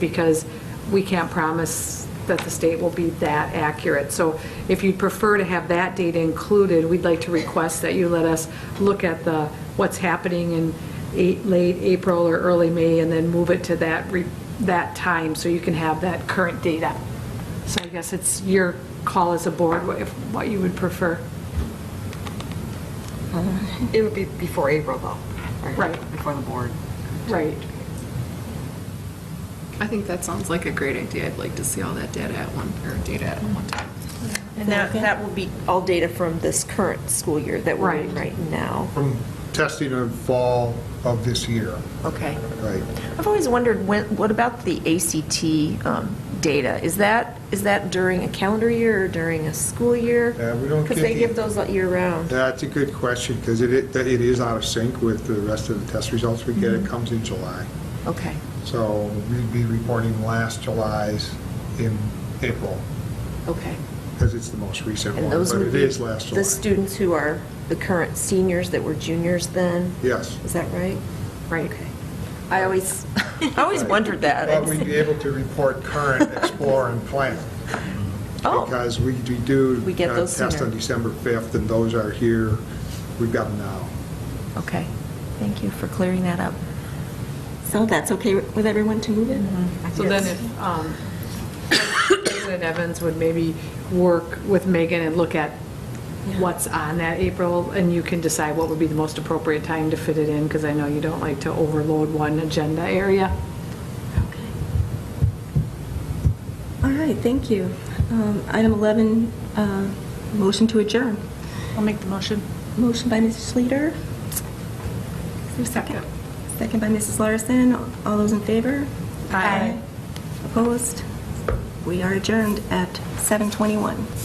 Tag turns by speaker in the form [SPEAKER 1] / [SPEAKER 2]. [SPEAKER 1] because we can't promise that the state will be that accurate. So if you'd prefer to have that data included, we'd like to request that you let us look at the, what's happening in eight- late April or early May, and then move it to that, re- that time, so you can have that current data. So I guess it's your call as a board, what- if- what you would prefer.
[SPEAKER 2] It would be before April, though.
[SPEAKER 1] Right.
[SPEAKER 2] Before the board.
[SPEAKER 1] Right.
[SPEAKER 3] I think that sounds like a great idea. I'd like to see all that data at one, or data at one time.
[SPEAKER 4] And that, that will be all data from this current school year that we're in
[SPEAKER 1] Right.
[SPEAKER 4] right now.
[SPEAKER 5] From testing in fall of this year,
[SPEAKER 3] Okay.
[SPEAKER 5] right?
[SPEAKER 4] I've always wondered, when, what about the ACT um, data? Is that, is that during a calendar year or during a school year?
[SPEAKER 5] Yeah, Uh, we don't
[SPEAKER 4] Because they
[SPEAKER 5] get
[SPEAKER 4] give
[SPEAKER 5] the-
[SPEAKER 4] those year-round.
[SPEAKER 5] That's a good question, because it, it it is out of sync with the rest of the test results we get. It comes in July.
[SPEAKER 4] Mm-hmm. Okay.
[SPEAKER 5] So we'd be reporting last July's in April,
[SPEAKER 4] Okay.
[SPEAKER 5] because it's the most recent one,
[SPEAKER 4] And those
[SPEAKER 5] but
[SPEAKER 4] would
[SPEAKER 5] it
[SPEAKER 4] be
[SPEAKER 5] is last
[SPEAKER 4] the
[SPEAKER 5] July.
[SPEAKER 4] students who are the current seniors that were juniors then?
[SPEAKER 5] Yes.
[SPEAKER 4] Is that right?
[SPEAKER 1] Right.
[SPEAKER 4] Okay. I always, I always wondered that.
[SPEAKER 5] But we'd be able to report current, explore, and plan.
[SPEAKER 4] Oh.
[SPEAKER 5] Because we we do.
[SPEAKER 4] We get
[SPEAKER 5] uh,
[SPEAKER 4] those
[SPEAKER 5] Test
[SPEAKER 4] sooner.
[SPEAKER 5] on December 5th, and those are here. We've got them now.
[SPEAKER 4] Okay, thank you for clearing that up. So that's okay with everyone to move it?
[SPEAKER 6] Mm-hmm.
[SPEAKER 1] So then if, um, President Evans would maybe work with Megan and look at what's on that April, and you can decide what would be the most appropriate time to fit it in, because I know you don't like to overload one agenda area.
[SPEAKER 7] All right, thank you. Um, Item 11, uh, motion to adjourn.
[SPEAKER 6] I'll make the motion.
[SPEAKER 7] Motion by Mrs. Schleter. Is there a second? Second by Mrs. Larson. All those in favor? Aye. Opposed? We are adjourned at 7:21.